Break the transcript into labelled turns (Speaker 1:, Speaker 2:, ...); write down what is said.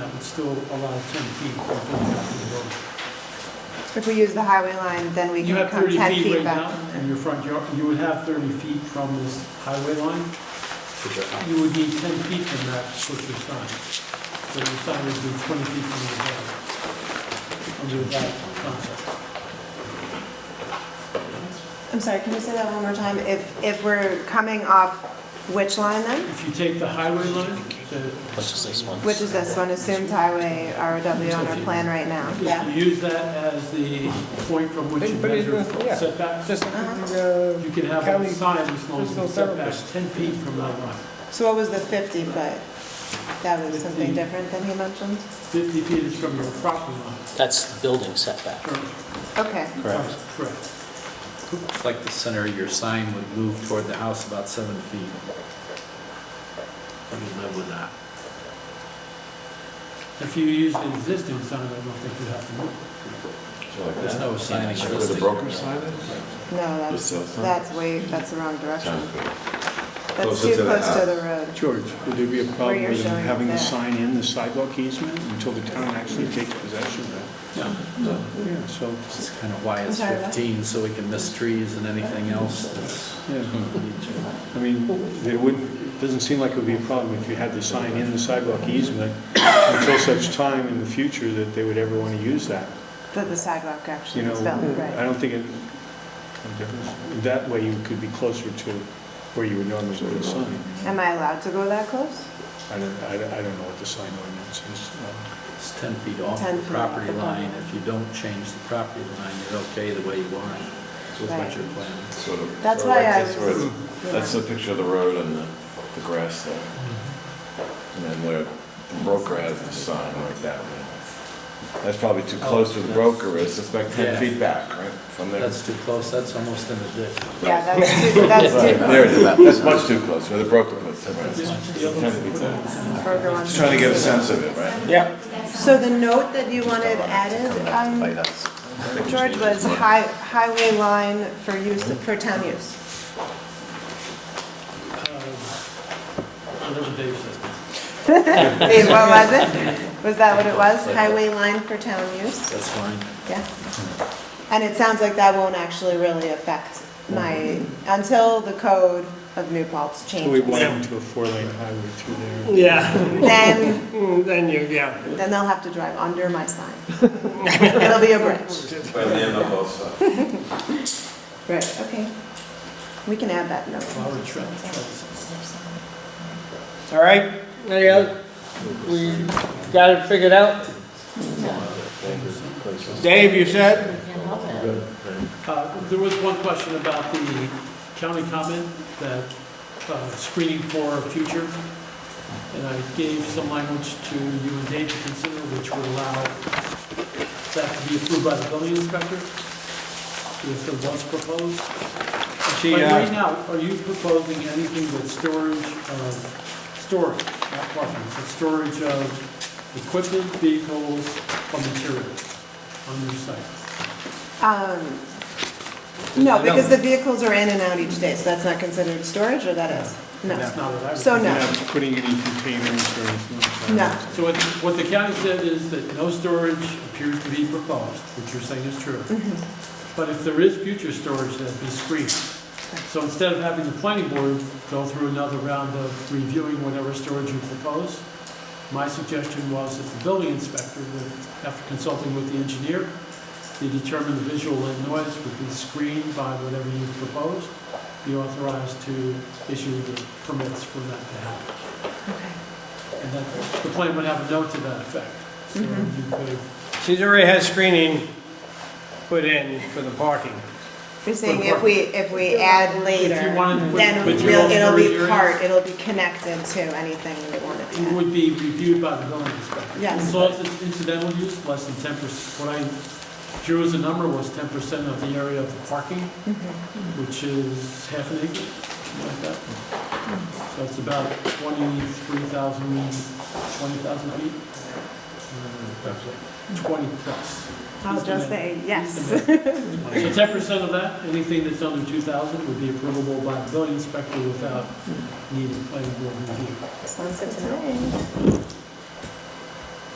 Speaker 1: would still allow 10 feet from the back of the building.
Speaker 2: If we use the highway line, then we
Speaker 1: You
Speaker 2: can
Speaker 1: have
Speaker 2: come
Speaker 1: 30
Speaker 2: 10
Speaker 1: feet
Speaker 2: feet
Speaker 1: right now
Speaker 2: back.
Speaker 1: in your front yard, you would have 30 feet from this highway line. You would need 10 feet from that to put your sign. So your sign would be 20 feet from the back, under that concept.
Speaker 2: I'm sorry, can you say that one more time? If, if we're coming off which line then?
Speaker 1: If you take the highway line, the-
Speaker 3: Let's just this one.
Speaker 2: Which is this one, assumed highway ROW on our plan right now? Yeah.
Speaker 1: if you use that as the point from which you
Speaker 4: But- but it
Speaker 1: measure
Speaker 4: was- yeah.
Speaker 1: setbacks,
Speaker 4: Just like the,
Speaker 2: Uh-huh.
Speaker 1: you can have
Speaker 4: County
Speaker 1: a sign as long as
Speaker 4: physical
Speaker 1: it's setback
Speaker 4: therapist.
Speaker 1: 10 feet from that line.
Speaker 2: So what was the 50 foot? That was something
Speaker 1: 50.
Speaker 2: different than he mentioned?
Speaker 1: 50 feet is from your property line.
Speaker 3: That's the building setback.
Speaker 1: Sure.
Speaker 2: Okay,
Speaker 3: Correct.
Speaker 1: Correct.
Speaker 5: It's like the center of your sign would move toward the house about seven feet. I can live with that.
Speaker 1: If you use the existing sign, I don't think you have to move.
Speaker 5: There's no sign
Speaker 6: Where the
Speaker 5: existing.
Speaker 6: broker sign is?
Speaker 2: no, that's,
Speaker 6: south side?
Speaker 2: that's way, that's the wrong direction.
Speaker 6: Sounds good.
Speaker 2: That's
Speaker 6: Closer
Speaker 2: too
Speaker 6: to the
Speaker 2: close to
Speaker 6: house.
Speaker 2: the road.
Speaker 7: George, would there be a
Speaker 2: Where
Speaker 7: problem
Speaker 2: you're
Speaker 7: with
Speaker 2: showing
Speaker 7: having the
Speaker 2: that.
Speaker 7: sign in the sidewalk easement until the town actually takes possession of
Speaker 6: No.
Speaker 7: it? Yeah, so,
Speaker 5: It's kind of why it's
Speaker 2: I'm sorry, what?
Speaker 5: 15, so we can miss trees and anything else that's...
Speaker 7: yeah, I mean, it wouldn't, it doesn't seem like it would be a problem if you had the sign in the sidewalk easement until such time in the future that they would ever want to use that,
Speaker 2: That the sidewalk
Speaker 7: you
Speaker 2: actually
Speaker 7: know? uh,
Speaker 2: is built,
Speaker 7: I
Speaker 2: right?
Speaker 7: don't think it, that way you could be closer to where you would normally put a sign.
Speaker 2: Am I allowed to go that close?
Speaker 7: I don't, I don't I don't know what the sign ordinance is. um,
Speaker 5: It's 10 feet off
Speaker 2: 10
Speaker 5: the
Speaker 2: feet off
Speaker 5: property
Speaker 2: the
Speaker 5: line.
Speaker 2: property.
Speaker 5: If you don't change the property line, you're okay the way you are. So
Speaker 2: Right.
Speaker 5: what's your plan?
Speaker 6: Sort of-
Speaker 2: That's
Speaker 6: sort
Speaker 2: why
Speaker 6: of like
Speaker 2: I was-
Speaker 6: this, where it's-
Speaker 2: Yeah.
Speaker 6: That's the picture of the road and the, the grass there.
Speaker 5: Mm-hmm.
Speaker 6: And then where the broker has the sign like that. That's probably too close to the broker is, it's like ten
Speaker 5: Oh, Yeah.
Speaker 6: feet back, right, from there.
Speaker 5: That's too close, that's almost in the ditch.
Speaker 2: Yeah, that's too, that's
Speaker 6: Right,
Speaker 2: too.
Speaker 6: There it is, that's much too close, where the broker puts it, right.
Speaker 1: The other
Speaker 6: Ten feet
Speaker 1: one,
Speaker 6: back.
Speaker 2: Kroger wants
Speaker 6: Just trying to get a sense of it, right?
Speaker 4: yeah,
Speaker 2: So the note that you wanted added, um, George, was hi- highway line for use, for town use.
Speaker 1: uh, I know what Dave said.
Speaker 2: Dave, what was it? Was that what it was? Highway line for town use?
Speaker 5: That's fine.
Speaker 2: Yeah. And it sounds like that won't actually really affect my, until the code of New Paltz
Speaker 7: So we
Speaker 2: changes.
Speaker 7: went into a four-lane highway through there.
Speaker 4: yeah,
Speaker 2: Then,
Speaker 4: Mm, then you, yeah.
Speaker 2: then they'll have to drive under my sign. It'll be a bridge. Right, okay. We can add that note.
Speaker 1: I would try- try this.
Speaker 4: All right, any other, we got it figured out? Dave, you said?
Speaker 1: Uh, There was one question about the county comment, that uh, screening for future, and I gave some language to you and Dave to consider, which would allow that to be approved by the building inspector, if it was proposed.
Speaker 4: She,
Speaker 1: But
Speaker 4: uh,
Speaker 1: right now, are you proposing anything with storage of, storage, not parking, but storage of equipment, vehicles, or materials on your site?
Speaker 2: Um, No, because the vehicles are in and out each day, so that's not considered storage, or that is?
Speaker 1: That's
Speaker 2: No.
Speaker 1: not what I was...
Speaker 2: So
Speaker 7: You're
Speaker 2: no,
Speaker 7: not putting any containers or anything like that?
Speaker 2: no.
Speaker 1: So what, what the county said is that no storage appears to be proposed, which you're saying is true. But if there is future storage, that'd be screened. So instead of having the planning board go through another round of reviewing whatever storage you propose, my suggestion was that the building inspector would, after consulting with the engineer, they determine the visual and noise would be screened by whatever you proposed, be authorized to issue the permits for that to happen. And then the plan would have a note to that effect. So you
Speaker 2: Mm-hmm.
Speaker 1: could,
Speaker 4: She's already had screening put in for the parking.
Speaker 2: You're saying if we, if we add later,
Speaker 1: If you wanted to put
Speaker 2: then
Speaker 1: materials
Speaker 2: we'll- it'll
Speaker 1: storage
Speaker 2: be
Speaker 1: areas?
Speaker 2: part, it'll be connected to anything we want it
Speaker 1: it
Speaker 2: to.
Speaker 1: would be reviewed by the building inspector.
Speaker 2: Yes.
Speaker 1: As long as it's incidental use, less than ten percent, what I drew as a number was ten percent of the area of the parking,
Speaker 2: Mm-hmm.
Speaker 1: which is half an acre, something like that. So it's about twenty-three thousand, twenty thousand feet. Twenty plus.
Speaker 2: I'll just say yes.
Speaker 1: So ten percent of that, anything that's under two thousand would be approvable by the building inspector without needing planning board review.
Speaker 2: Sounds good to me.